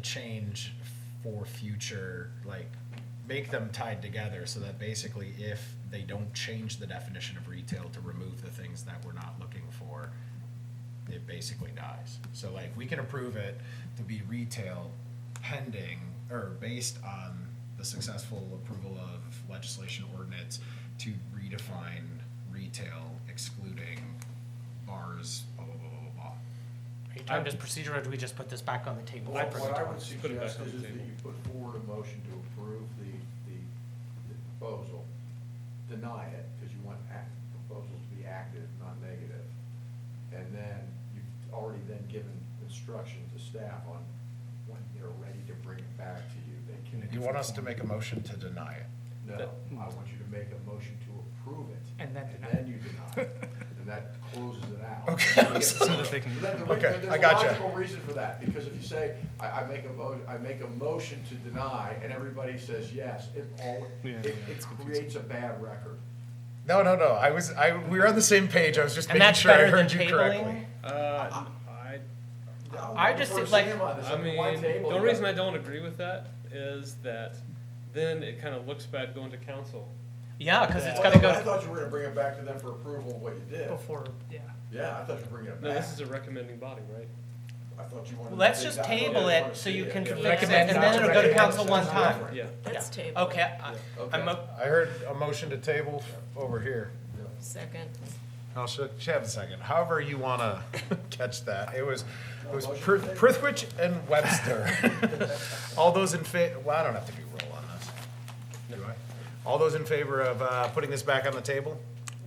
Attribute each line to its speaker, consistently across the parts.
Speaker 1: change for future, like, make them tied together so that basically if they don't change the definition of retail to remove the things that we're not looking for, it basically dies. So like, we can approve it to be retail pending, or based on the successful approval of legislation ordinance to redefine retail excluding bars, blah, blah, blah, blah, blah, blah.
Speaker 2: Are you talking just procedure, or do we just put this back on the table?
Speaker 3: What what I would
Speaker 4: Put it back
Speaker 3: suggest
Speaker 4: on
Speaker 3: is
Speaker 4: the
Speaker 3: is that
Speaker 4: table.
Speaker 3: you put forward a motion to approve the, the the proposal, deny it, because you want act, proposals to be active, not negative. And then you've already then given instruction to staff on when they're ready to bring it back to you, they can.
Speaker 1: You want us to make a motion to deny it?
Speaker 3: No, I want you to make a motion to approve it.
Speaker 2: And then deny.
Speaker 3: you deny it, and that closes it out.
Speaker 1: Okay.
Speaker 3: So
Speaker 1: So that they
Speaker 4: can-
Speaker 3: that the re-
Speaker 1: Okay,
Speaker 3: there's
Speaker 1: I
Speaker 3: a
Speaker 1: gotcha.
Speaker 3: logical reason for that, because if you say, I, I make a vote, I make a motion to deny, and everybody says yes, it all,
Speaker 4: Yeah,
Speaker 3: it, it creates a bad record.
Speaker 1: No, no, no. I was, I, we were on the same page. I was just
Speaker 2: And
Speaker 1: making
Speaker 2: that's
Speaker 1: sure I
Speaker 2: better than
Speaker 1: heard you
Speaker 2: tabling?
Speaker 1: correctly.
Speaker 4: Uh, I,
Speaker 2: I just
Speaker 3: We're
Speaker 2: did, like-
Speaker 3: seeing Uh, on this,
Speaker 4: I mean,
Speaker 3: why table
Speaker 4: the
Speaker 3: it?
Speaker 4: only reason I don't agree with that is that then it kind of looks bad going to council.
Speaker 2: Yeah, because it's
Speaker 3: Well,
Speaker 2: gotta
Speaker 3: Oh, I
Speaker 2: go
Speaker 3: thought you were gonna bring it back to them for approval of what you did.
Speaker 2: before, yeah.
Speaker 3: Yeah, I thought you were bringing it
Speaker 4: No,
Speaker 3: back.
Speaker 4: this is a recommending body, right?
Speaker 3: I thought you wanted.
Speaker 2: Let's
Speaker 3: to-
Speaker 2: just
Speaker 3: I thought you
Speaker 2: table
Speaker 3: wanted
Speaker 2: it
Speaker 3: to
Speaker 2: so
Speaker 3: see
Speaker 2: you
Speaker 3: it.
Speaker 2: can
Speaker 3: Yeah.
Speaker 2: fix
Speaker 1: it,
Speaker 2: and
Speaker 1: then it'll go to council
Speaker 2: one time.
Speaker 4: Yeah.
Speaker 5: That's
Speaker 2: Yeah.
Speaker 5: table.
Speaker 2: Okay, I-
Speaker 3: Okay.
Speaker 2: I'm, o-
Speaker 1: I heard a motion to table over here.
Speaker 5: Second.
Speaker 1: I'll sh- sh- have a second. However you want to catch that. It was, it was
Speaker 3: Motion
Speaker 1: Pr-
Speaker 3: to table.
Speaker 1: Prithwich and Webster. All those in fa, well, I don't have to do roll on this. Do I? All those in favor of, uh, putting this back on the table?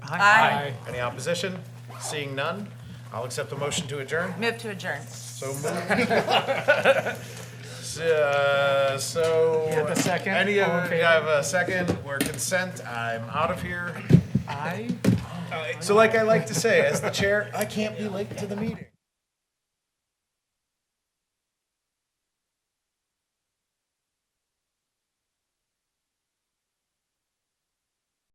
Speaker 5: Aye.
Speaker 1: Any opposition? Seeing none, I'll accept the motion to adjourn.
Speaker 5: Move to adjourn.
Speaker 1: So moved. Uh, So.
Speaker 2: have a second?
Speaker 1: Any
Speaker 2: All in
Speaker 1: of,
Speaker 2: favor?
Speaker 1: I have a second, we're consent, I'm out of here.
Speaker 2: I Oh,
Speaker 1: So like I like to say, as the chair, I can't be late to the meeting.